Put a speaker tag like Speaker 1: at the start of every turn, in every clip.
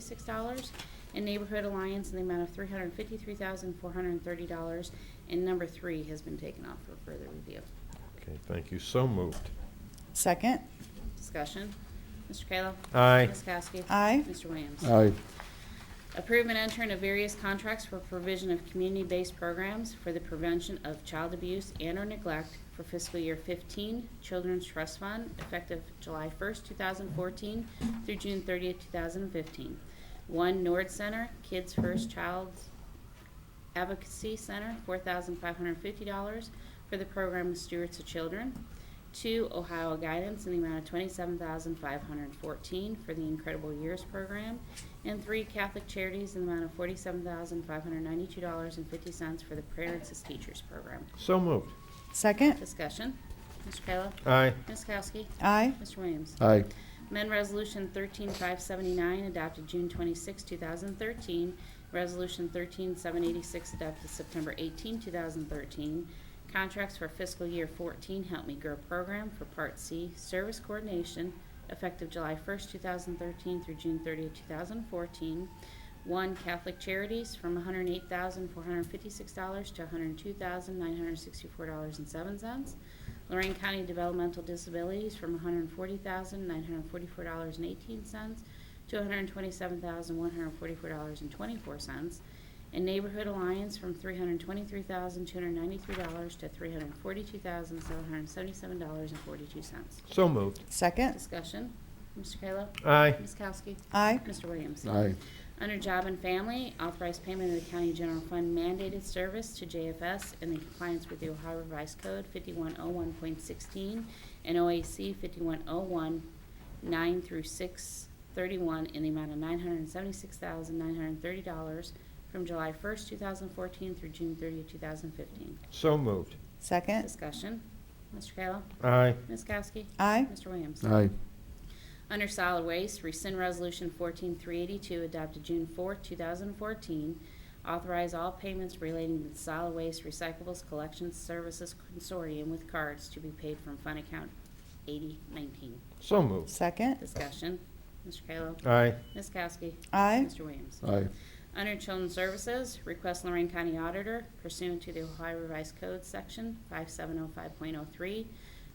Speaker 1: $156, and Neighborhood Alliance in the amount of $353,430, and number three has been taken off for further review.
Speaker 2: Okay, thank you. So moved.
Speaker 3: Second.
Speaker 1: Discussion. Mr. Kayla?
Speaker 2: Aye.
Speaker 1: Ms. Kowski?
Speaker 3: Aye.
Speaker 1: Mr. Williams?
Speaker 4: aye,
Speaker 1: Approve and enter into various contracts for provision of community-based programs for the prevention of child abuse and/or neglect for fiscal year 15 Children's Trust Fund effective July 1st, 2014 through June 30th, 2015. One Nord Center Kids First Child's Advocacy Center, $4,550 for the program Stewards of Children. Two, Ohio Guidance in the amount of $27,514 for the Incredible Years Program. And three, Catholic Charities in the amount of $47,592.50 for the Parents as Teachers Program.
Speaker 2: So moved.
Speaker 3: Second.
Speaker 1: Discussion. Mr. Kayla?
Speaker 2: Aye.
Speaker 1: Ms. Kowski?
Speaker 3: Aye.
Speaker 1: Mr. Williams?
Speaker 4: aye,
Speaker 1: Amend Resolution 13579 adopted June 26, 2013. Resolution 13786 adopted September 18, 2013. Contracts for fiscal year 14 Help Me Grow program for Part C Service Coordination effective July 1, 2013 through June 30, 2014. One Catholic Charities from $108,456 to $102,964.07. Lorraine County Developmental Disabilities from $140,944.18 to $127,144.24, and Neighborhood Alliance from $323,293 to $342,777.42.
Speaker 2: So moved.
Speaker 3: Second.
Speaker 1: Discussion, Mr. Kayla?
Speaker 2: Aye.
Speaker 1: Ms. Kowski?
Speaker 3: Aye.
Speaker 1: Mr. Williams?
Speaker 4: aye,
Speaker 1: Under Job and Family, authorize payment of the County General Fund mandated service to JFS in compliance with the Ohio Revised Code 5101.16 and OAC 5101.9 through 631 in the amount of $976,930 from July 1st, 2014 through June 30th, 2015.
Speaker 2: So moved.
Speaker 3: Second.
Speaker 1: Discussion. Mr. Kayla?
Speaker 2: Aye.
Speaker 1: Ms. Kowski?
Speaker 3: Aye.
Speaker 1: Mr. Williams?
Speaker 4: aye,
Speaker 1: Under solid waste, rescind resolution 14382 adopted June 4, 2014. Authorize all payments relating to the solid waste recyclables collection services consortium with cards to be paid from fund account 8019.
Speaker 2: So moved.
Speaker 3: Second.
Speaker 1: Discussion. Mr. Kayla.
Speaker 2: Aye.
Speaker 1: Ms. Kowski.
Speaker 3: Aye.
Speaker 1: Mr. Williams.
Speaker 4: aye,
Speaker 1: Under Children's Services, request Lorraine County Auditor pursuant to the Ohio Revised Code Section 5705.03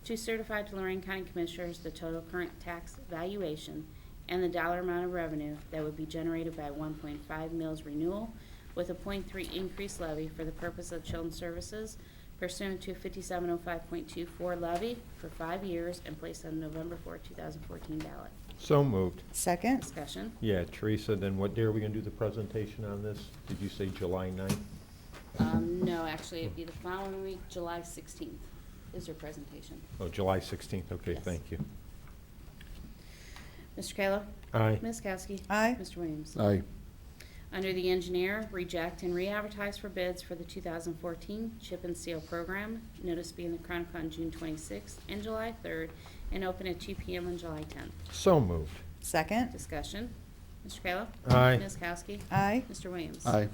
Speaker 1: to certify to Lorraine County Commissioners the total current tax valuation and the dollar amount of revenue that would be generated by 1.5 mills renewal with a .3 increase levy for the purpose of Children's Services pursuant to 5705.24 levy for five years and placed on November 4, 2014 ballot.
Speaker 2: So moved.
Speaker 3: Second.
Speaker 1: Discussion.
Speaker 2: Yeah, Teresa, then what day are we going to do the presentation on this? Did you say July 9th?
Speaker 1: Um, no, actually, it'd be the following week, July 16th is her presentation.
Speaker 2: Oh, July 16th. Okay,
Speaker 1: Yes.
Speaker 2: thank you.
Speaker 1: Mr. Kayla?
Speaker 2: Aye.
Speaker 1: Ms. Kowski?
Speaker 3: Aye.
Speaker 1: Mr. Williams?
Speaker 4: aye,
Speaker 1: Under the engineer, reject and re-advertise for bids for the 2014 chip and seal program. Notice being the Chronicle on June 26th and July 3rd, and open at 2 PM on July 10th.
Speaker 2: So moved.
Speaker 3: Second.
Speaker 1: Discussion. Mr. Kayla?
Speaker 2: Aye.
Speaker 1: Ms. Kowski?
Speaker 3: Aye.
Speaker 1: Mr. Williams?
Speaker 4: aye,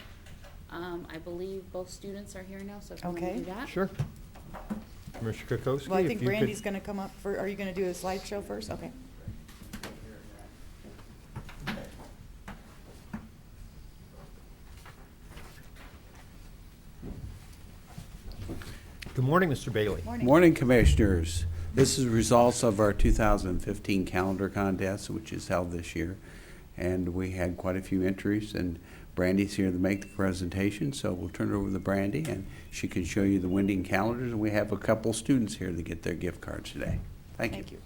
Speaker 1: Um, I believe both students are here now, so if you want to
Speaker 3: Okay.
Speaker 1: do that.
Speaker 2: Sure. Commissioner Kokoski?
Speaker 3: Well, I
Speaker 2: if
Speaker 3: think
Speaker 2: you could-
Speaker 3: Brandy's going to come up for, are you going to do a slideshow first? Okay.
Speaker 2: Good morning, Mr. Bailey.
Speaker 3: Morning.
Speaker 5: Morning, Commissioners. This is results of our 2015 calendar contest, which is held this year. And we had quite a few entries, and Brandy's here to make the presentation, so we'll turn it over to Brandy, and she can show you the winning calendars. And we have a couple students here to get their gift cards today. Thank you.
Speaker 3: Thank you.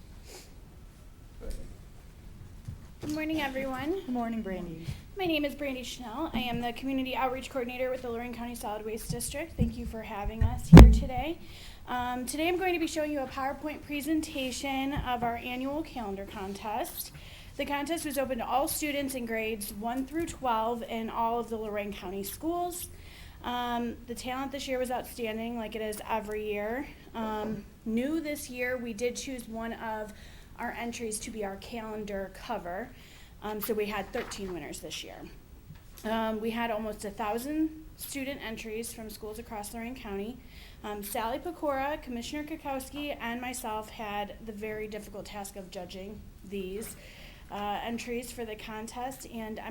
Speaker 6: Good morning, everyone.
Speaker 3: Good morning, Brandy.
Speaker 6: My name is Brandy Schnell. I am the Community Outreach Coordinator with the Lorraine County Solid Waste District. Thank you for having us here today. Um, today, I'm going to be showing you a PowerPoint presentation of our annual calendar contest. The contest was open to all students in grades 1 through 12 in all of the Lorraine County schools. Um, the talent this year was outstanding, like it is every year. Um, new this year, we did choose one of our entries to be our calendar cover. Um, so we had 13 winners this year. Um, we had almost a thousand student entries from schools across Lorraine County. Um, Sally Pecora, Commissioner Kokowski, and myself had the very difficult task of judging these. uh, entries for the contest, and